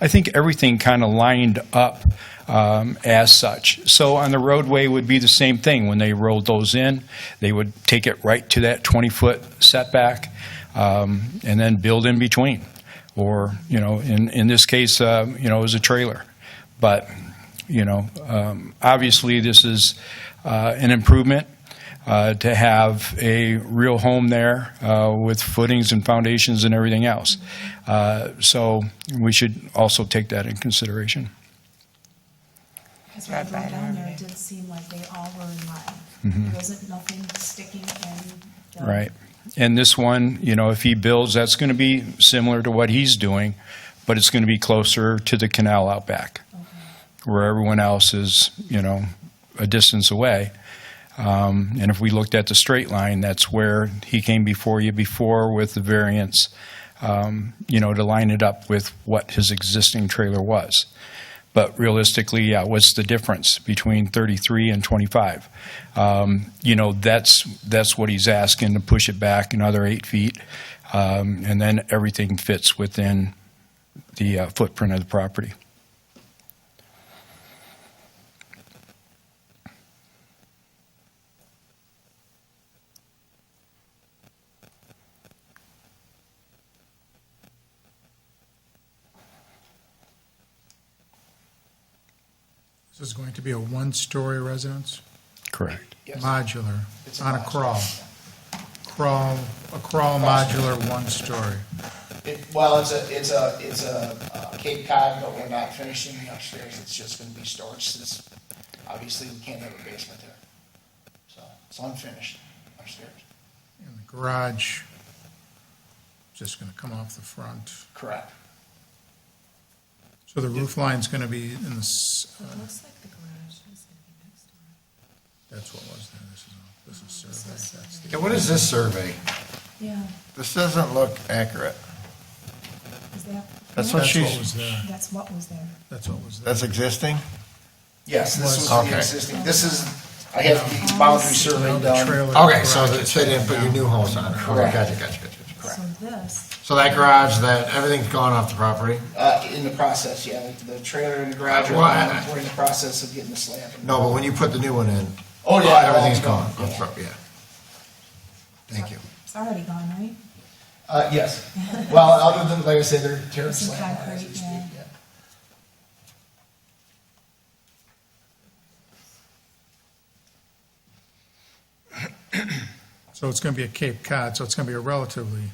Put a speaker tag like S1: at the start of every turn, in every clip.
S1: I think everything kind of lined up um, as such. So on the roadway would be the same thing. When they rolled those in, they would take it right to that 20-foot setback um, and then build in between. Or, you know, in, in this case, uh, you know, it was a trailer. But, you know, um, obviously, this is uh, an improvement uh, to have a real home there uh, with footings and foundations and everything else. Uh, So we should also take that in consideration.
S2: Because when I drove down there, it did seem like they all were in line. There wasn't nothing sticking in. the-
S1: Right. And this one, you know, if he builds, that's going to be similar to what he's doing, but it's going to be closer to the canal out back, where everyone else is, you know, a distance away. Um, And if we looked at the straight line, that's where he came before you before with the variance, um, you know, to line it up with what his existing trailer was. But realistically, yeah, what's the difference between 33 and 25? Um, You know, that's, that's what he's asking, to push it back another eight feet, um, and then everything fits within the uh, footprint of the property.
S3: This is going to be a one-story residence,
S1: Correct.
S3: modular, on a crawl. Crawl, a crawl modular, one-story.
S4: It, well, it's a, it's a, it's a uh, Cape Cod, but we're not finishing the upstairs, it's just gonna be storage, since obviously we can't have a basement there. So, it's unfinished upstairs,
S3: And the garage, just going to come off the front.
S4: correct.
S3: So the roof line's going to be in the, s- uh,
S2: It looks like the garage is gonna be next door.
S3: that's what was there, this is, all- this is survey, that's the,
S5: Yeah, what is this survey?
S2: Yeah,
S5: This doesn't look accurate.
S2: is that?
S5: That's what
S3: that's what
S5: she's,
S3: was there,
S2: That's what was there.
S3: that's what was there.
S5: that's existing?
S4: Yes, this was
S5: Okay.
S4: the existing, this is, I have the boundary survey done,
S3: Trailer
S5: Okay, so
S3: garage
S5: they
S3: is
S5: they didn't put your new homes on it. Okay,
S4: Correct.
S5: gotcha, gotcha, gotcha, gotcha.
S2: So this,
S5: So that garage, that, everything's gone off the property?
S4: uh, in the process, yeah, the- the trailer and the garage, are
S5: Why?
S4: gone. we're in the process of getting the slab.
S5: No, but when you put the new one in,
S4: Oh, yeah.
S5: everything's gone.
S4: Yeah.
S5: That's right, Yeah. Thank you.
S2: it's already gone, right?
S4: Uh, yes, well, other than, like I said, they're tearing
S2: Some
S4: slab. out as we
S2: concrete,
S4: speak,
S2: yeah.
S4: yeah.
S3: So it's going to be a Cape Cod, so it's going to be a relatively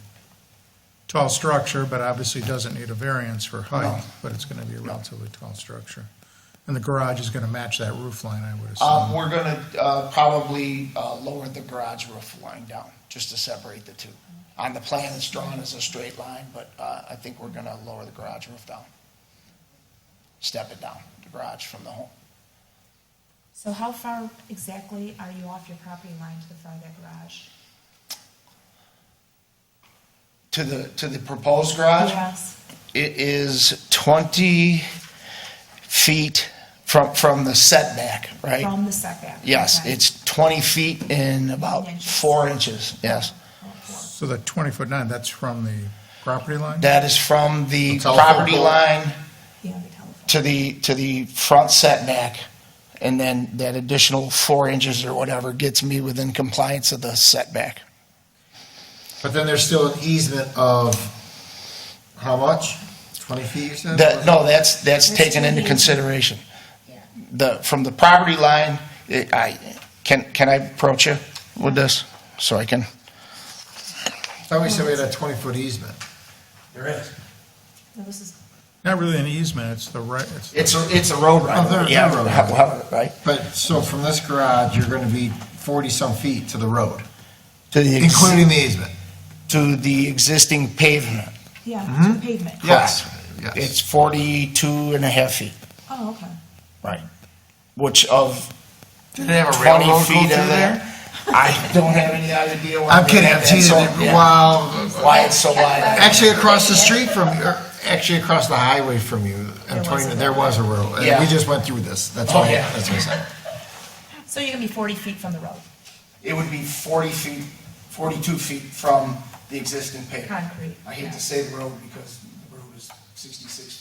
S3: tall structure, but obviously doesn't need a variance for height, but it's going to be a relatively tall structure. And the garage is going to match that roof line, I would
S4: Um,
S3: assume.
S4: we're gonna, uh, probably, uh, lower the garage roof line down, just to separate the two. On the plan, it's drawn as a straight line, but, uh, I think we're gonna lower the garage roof down. Step it down, the garage from the home.
S2: So how far exactly are you off your property line to the front of that garage?
S4: To the, to the proposed garage?
S2: Yes,
S4: It is twenty feet from, from the setback, right?
S2: from the setback.
S4: Yes,
S2: Okay.
S4: it's twenty feet and about
S2: Inches.
S4: four inches, yes.
S3: So the 20-foot nine, that's from the property line?
S4: That is from the
S5: The telephone
S4: property
S5: pole.
S4: line
S2: Yeah, the telephone.
S4: to the, to the front setback, and then that additional four inches or whatever gets me within compliance of the setback.
S5: But then there's still an easement of, how much? Twenty feet, you said?
S4: That, no, that's, that's
S2: That's
S4: taken
S2: too
S4: into
S2: easy.
S4: consideration.
S2: Yeah.
S4: The, from the property line, it- I, can, can I approach you with this, so I can?
S5: I thought we said we had a twenty-foot easement.
S4: There is.
S2: No, this is,
S3: Not really an easement, it's the right, it's,
S4: It's a, it's a road right
S5: Oh, there-
S4: Yeah,
S5: there road.
S4: however, right?
S5: But, so from this garage, you're gonna be forty-some feet to the road,
S4: To the, ex-
S5: including the easement?
S4: to the existing pavement.
S2: yeah, to pavement.
S5: Yes, yes.
S4: It's 42 and a half feet.
S2: Oh, okay.
S4: Right. Which of
S5: Did they have a railroad
S4: 20
S5: go
S4: feet
S5: through
S4: of there?
S5: there?
S4: I don't have any idea why.
S5: I'm
S4: they
S5: kidding,
S4: have
S5: I'm
S4: that,
S5: teasing.
S4: so,
S5: you.
S4: yeah.
S5: Wow.
S4: Why it's so wide.
S5: Actually, across the street from, you- or actually across the highway from you,
S2: There
S5: I'm telling
S2: was
S5: you,
S2: a
S5: there was a railroad. And
S4: Yeah.
S5: we just went through this, that's
S4: Oh,
S5: why,
S4: yeah.
S5: that's what I said.
S2: So you're gonna be forty feet from the road,
S4: It would be 40 feet, 42 feet from the existing pavement.
S2: concrete.
S4: I hate to say the road because the road is 66